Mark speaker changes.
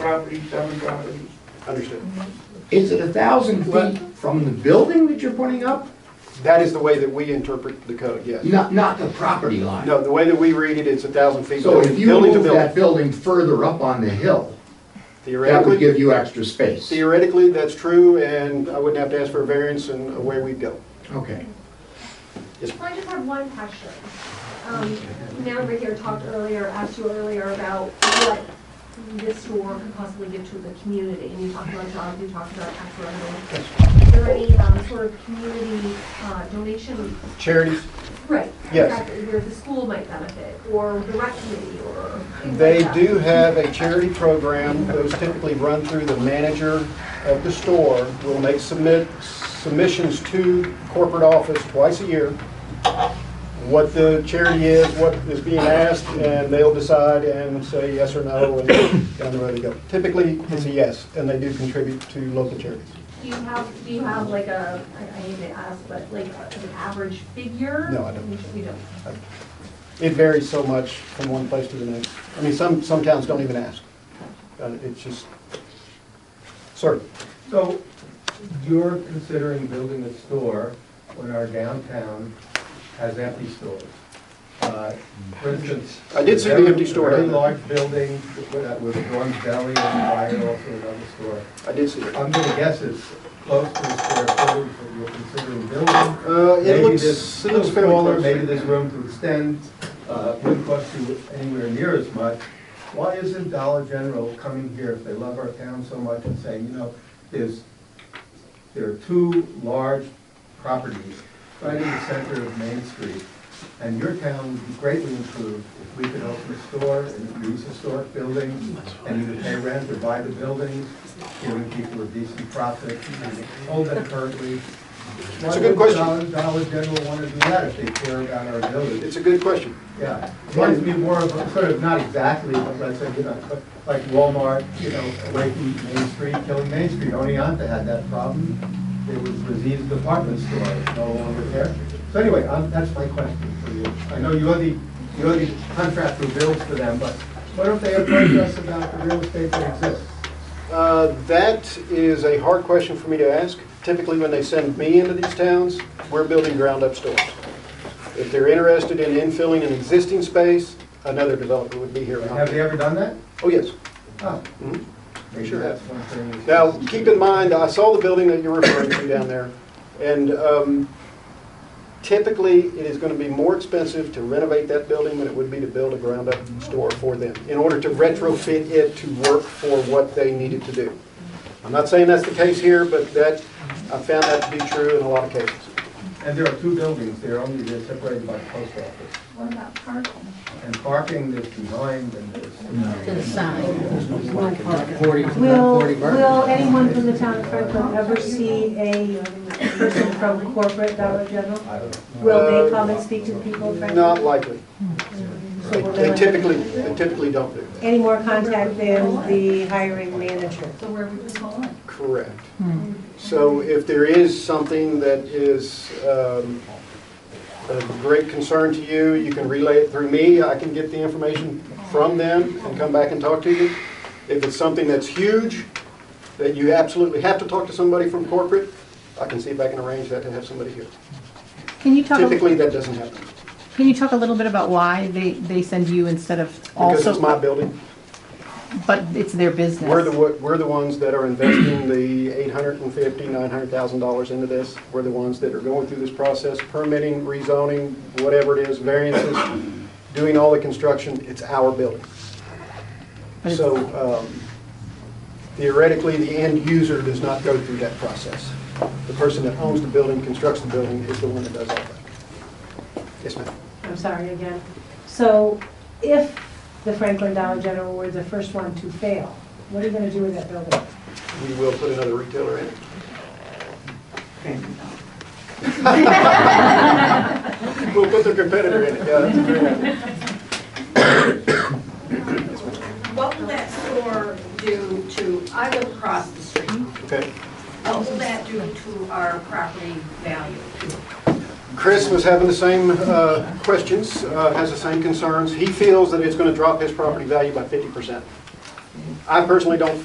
Speaker 1: property, seven properties.
Speaker 2: Understood.
Speaker 3: Is it a thousand
Speaker 2: What?
Speaker 3: feet from the building that you're putting up?
Speaker 2: That is the way that we interpret the code, yes.
Speaker 3: Not, not the property line?
Speaker 2: No, the way that we read it, it's a thousand feet.
Speaker 3: So if you
Speaker 2: building to
Speaker 3: move
Speaker 2: building.
Speaker 3: that building further up on the hill, that would
Speaker 2: Theoretically,
Speaker 3: give you extra space?
Speaker 2: theoretically, that's true, and I wouldn't have to ask for a variance and away we'd go.
Speaker 3: Okay.
Speaker 4: I just have one question. Um, Now, Rick here talked earlier, asked you earlier about what this store could possibly give to the community, and you talked about jobs, you talked about tax revenue. Is there any um, sort of community uh, donation?
Speaker 2: Charities,
Speaker 4: Right.
Speaker 2: Yes.
Speaker 4: exactly, Where the school might benefit, or the rec committee, or things like
Speaker 2: they
Speaker 4: that.
Speaker 2: do have a charity program, those typically run through the manager of the store. Will make submit, submissions to corporate office twice a year, what the charity is, what is being asked, and they'll decide and say yes or no, and down the road they go. Typically, it's a yes, and they do contribute to local charities.
Speaker 4: Do you have, do you have like a, I- I hate to ask, but like an average figure?
Speaker 2: No, I don't.
Speaker 4: We don't.
Speaker 2: It varies so much from one place to the next. I mean, some, some towns don't even ask. Uh, It's just, certain.
Speaker 5: So you're considering building a store when our downtown has empty stores. Uh, For instance.
Speaker 2: I did see the
Speaker 5: a very-
Speaker 2: empty store.
Speaker 5: a Very large building with with Dawn's Deli and Fire also another store.
Speaker 2: I did see it.
Speaker 5: I'm gonna guess it's close to the square footage that you're considering building.
Speaker 2: Uh, it
Speaker 5: Maybe
Speaker 2: looks,
Speaker 5: this,
Speaker 2: it looks
Speaker 5: little
Speaker 2: fairly
Speaker 5: smaller,
Speaker 2: close.
Speaker 5: maybe there's room to extend, uh, wouldn't cost you anywhere near as much. Why isn't Dollar General coming here if they love our town so much and saying, you know, there's, there are two large properties right in the center of Main Street, and your town would be greatly improved if we could open a store and use historic buildings, and either pay rent or buy the buildings, giving people a decent profit, and hold them currently.
Speaker 2: It's a good question.
Speaker 5: Why would Dollar Dollar General want to do that if they care about our village?
Speaker 2: It's a good question.
Speaker 5: Yeah, reminds me more of, a- sort of, not exactly, but let's say, you know, like Walmart, you know, away from Main Street, killing Main Street. Oneonta had that problem. It was diseased department store, it's no longer there. So anyway, um, that's my question for you. I know you're the, you're the contractor who builds for them, but what if they approach us about the real estate that exists?
Speaker 2: Uh, That is a hard question for me to ask. Typically, when they send me into these towns, we're building ground-up stores. If they're interested in infilling an existing space, another developer would be here.
Speaker 5: Have they ever done that?
Speaker 2: Oh, yes.
Speaker 5: Oh,
Speaker 2: Mhm.
Speaker 5: maybe
Speaker 2: Sure.
Speaker 5: that's one thing.
Speaker 2: Now, keep in mind, I saw the building that you're referring to down there, and um, typically, it is going to be more expensive to renovate that building than it would be to build a ground-up store for them, in order to retrofit it to work for what they needed to do. I'm not saying that's the case here, but that, I found that to be true in a lot of cases.
Speaker 5: And there are two buildings, they're only, they're separated by the post office.
Speaker 4: What about parking?
Speaker 5: And parking, there's behind and there's.
Speaker 6: to the side.
Speaker 3: Forty,
Speaker 7: Will, will anyone from the town of Franklin ever see a person from corporate Dollar General?
Speaker 5: I don't know.
Speaker 7: Will they come and speak to the people of
Speaker 2: Not
Speaker 7: Franklin?
Speaker 2: likely. They they typically, they typically don't do that.
Speaker 7: Any more contact than the hiring manager?
Speaker 4: So where would this fall in?
Speaker 2: Correct. So if there is something that is um, of great concern to you, you can relay it through me. I can get the information from them and come back and talk to you. If it's something that's huge, that you absolutely have to talk to somebody from corporate, I can see if I can arrange that to have somebody here.
Speaker 6: Can you talk,
Speaker 2: Typically,
Speaker 6: can
Speaker 2: that doesn't happen
Speaker 6: you talk a little bit about why they, they send you instead of
Speaker 2: because it's my
Speaker 6: also,
Speaker 2: building.
Speaker 6: but it's their business?
Speaker 2: We're the, wo- we're the ones that are investing the $850,000, $900,000 into this. We're the ones that are going through this process, permitting, rezoning, whatever it is, variances, doing all the construction. It's our building.
Speaker 6: But it's-
Speaker 2: So um, theoretically, the end user does not go through that process. The person that owns the building, constructs the building, is the one that does all that. Yes, ma'am.
Speaker 7: I'm sorry again. So if the Franklin Dollar General were the first one to fail, what are you gonna do with that building?
Speaker 2: We will put another retailer in it. We'll put the competitor in it, yeah. that's a great idea.
Speaker 8: What will that store do to, I live across the street,
Speaker 2: Okay.
Speaker 8: what will that do to our property value?
Speaker 2: Chris was having the same uh, questions, uh, has the same concerns. He feels that it's going to drop his property value by 50%. I personally don't